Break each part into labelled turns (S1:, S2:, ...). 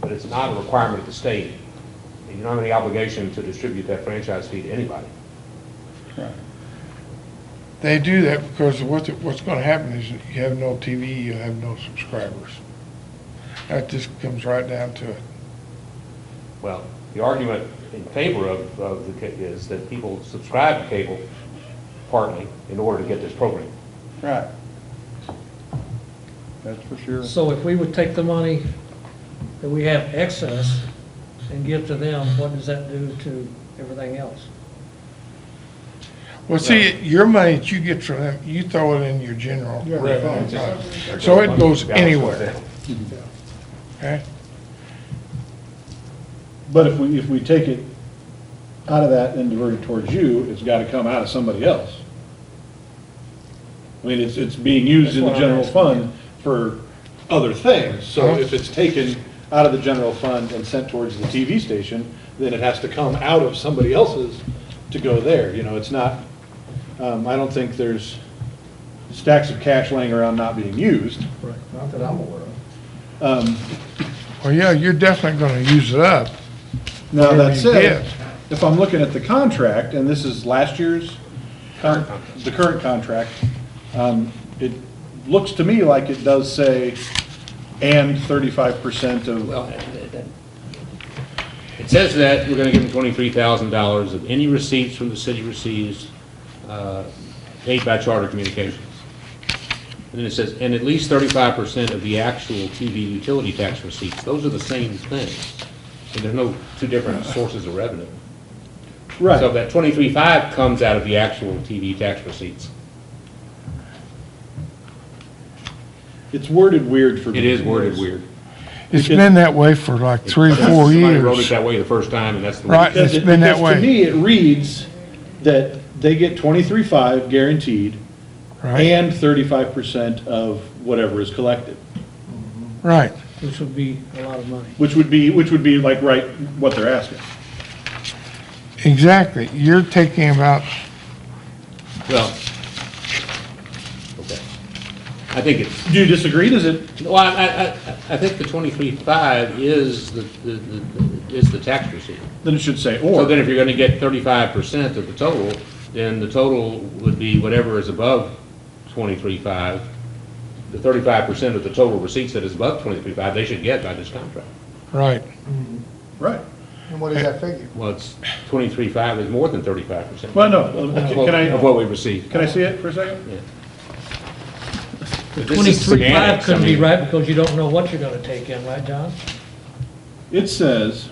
S1: but it's not a requirement of the state. And you don't have any obligation to distribute that franchise fee to anybody.
S2: They do that because what's, what's gonna happen is you have no TV, you have no subscribers. That just comes right down to it.
S1: Well, the argument in favor of, of the, ca- is that people subscribe to cable partly in order to get this program.
S3: Right. That's for sure.
S4: So if we would take the money that we have excess and give to them, what does that do to everything else?
S2: Well, see, your money that you get from them, you throw it in your general revenue.
S1: Just-
S2: So it goes
S1: Yeah, I was gonna
S2: anywhere,
S1: say.
S2: okay?
S5: But if we, if we take it out of that and divert it towards you, it's gotta come out of somebody else. I mean, it's, it's being used in the
S4: That's what I'm
S5: general fund for other things,
S3: Uh-huh.
S5: so if it's taken out of the general fund and sent towards the TV station, then it has to come out of somebody else's to go there, you know, it's not, um, I don't think there's stacks of cash laying around not being used.
S6: Not that I'm aware of.
S5: Um,
S2: Well, yeah, you're definitely gonna use it up.
S5: Now,
S2: Whatever
S5: that
S2: you
S5: said,
S2: get.
S5: if I'm looking at the contract, and this is last year's, con- the current contract, um, it looks to me like it does say, and thirty-five percent of,
S1: Well, it- it- it says that we're gonna give them twenty-three thousand dollars of any receipts from the city receives, uh, paid by Charter Communications. And then it says, and at least thirty-five percent of the actual TV utility tax receipts. Those are the same thing. And there's no two different sources of revenue. So
S5: right,
S1: that twenty-three five comes out of the actual TV tax receipts.
S5: it's worded weird for me.
S1: It is worded weird.
S2: It's been that way for like three, four
S1: Somebody wrote it
S2: years.
S1: that way the first time, and that's the way.
S2: Right.
S5: Because
S2: It's
S5: it-
S2: been that
S5: because
S2: way.
S5: To me, it reads that they get twenty-three-five guaranteed,
S2: Right,
S5: and thirty-five percent of whatever is collected,
S2: right.
S4: Which would be a lot of money.
S5: which would be, which would be like, right, what they're asking.
S2: Exactly. You're taking about,
S1: Well, okay. I think it's,
S5: Do you disagree? Does it,
S1: well, I, I, I- I think the twenty-three five is the, the, the- is the tax receipt.
S5: then it should say,
S1: So
S5: or.
S1: then if you're gonna get thirty-five percent of the total, then the total would be whatever is above twenty-three five. The thirty-five percent of the total receipts that is above twenty-three five, they should get by this contract.
S2: right.
S5: Right.
S6: And what does that figure?
S1: Well, it's twenty-three five is more than thirty-five percent.
S5: Well, no, can
S1: Of
S5: I,
S1: what we receive.
S5: can I see it for a second?
S1: This is
S4: Twenty-three five
S1: semantics, I
S4: couldn't be
S1: mean-
S4: right because you don't know what you're gonna take in, right, John?
S5: It says,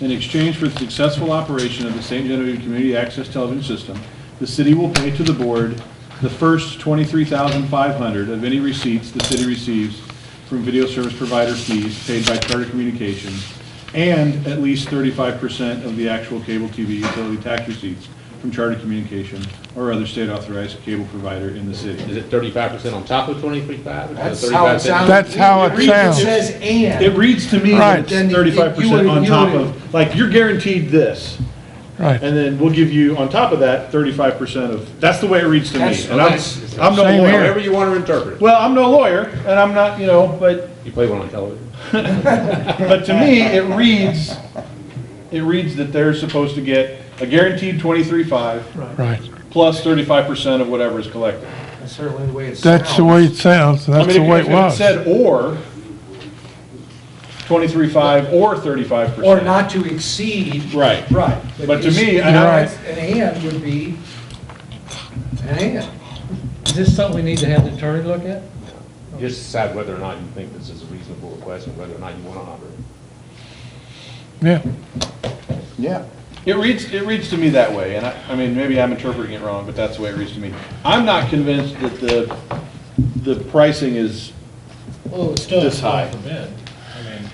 S5: "In exchange for the successful operation of the St. Genevieve Community Access Television System, the city will pay to the board the first $23,500 of any receipts the city receives from video service provider fees paid by Charter Communications, and at least 35% of the actual cable TV utility tax receipts from Charter Communications or other state-authorized cable provider in the city."
S1: Is it thirty-five percent on top of twenty-three five?
S6: That's how it sounds.
S2: That's how it
S6: reads
S2: sounds.
S6: It says
S5: It
S6: and.
S5: reads to me
S2: Right.
S5: that it's thirty-five
S6: You would-
S5: percent on
S6: you
S5: top
S6: would-
S5: of, like, you're guaranteed this,
S2: Right.
S5: and then we'll give you, on top of that, thirty-five percent of, that's the way it reads to me.
S6: That's-
S5: And I'm,
S6: that's-
S5: I'm no
S2: Same
S5: lawyer.
S2: here.
S1: However you want to interpret it.
S5: Well, I'm no lawyer, and I'm not, you know, but,
S1: You play one on television.
S5: but to me, it reads, it reads that they're supposed to get a guaranteed twenty-three-five
S2: Right.
S5: plus thirty-five percent of whatever is collected.
S6: That's certainly the way it sounds.
S2: That's the way it sounds. and
S5: I
S2: That's
S5: mean,
S2: the
S5: if-
S2: way it
S5: if
S2: was.
S5: Said or, twenty-three-five or thirty-five percent.
S6: Or not to exceed.
S5: Right.
S6: Right.
S5: But to
S6: it's-
S5: me, I-
S6: you know,
S2: Right.
S6: it's- An and would be an and.
S4: Is this something we need to have the attorney look at?
S1: Just decide whether or not you think this is a reasonable request and whether or not you want to honor it.
S2: Yeah.
S3: Yeah.
S5: It reads, it reads to me that way, and I, I mean, maybe I'm interpreting it wrong, but that's the way it reads to me. I'm not convinced that the, the pricing is,
S7: Well, it's still
S5: This
S7: this
S5: high.
S7: high for bid. I mean,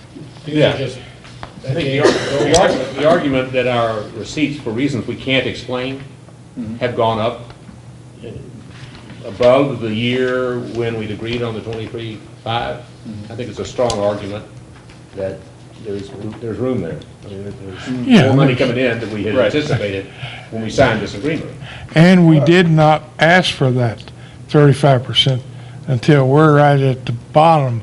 S7: these
S5: Yeah.
S7: are just,
S1: I think the ar- the argument, the argument that our receipts, for reasons we can't explain,
S6: Mm-hmm.
S1: have gone up above the year when we'd agreed on the twenty-three five,
S6: Mm-hmm.
S1: I think it's a strong argument that there's, there's room there. I mean, there's
S2: Yeah.
S1: more money coming in than we had
S5: Right.
S1: anticipated when we signed this agreement.
S2: And we did not ask for that thirty-five percent until we're right at the bottom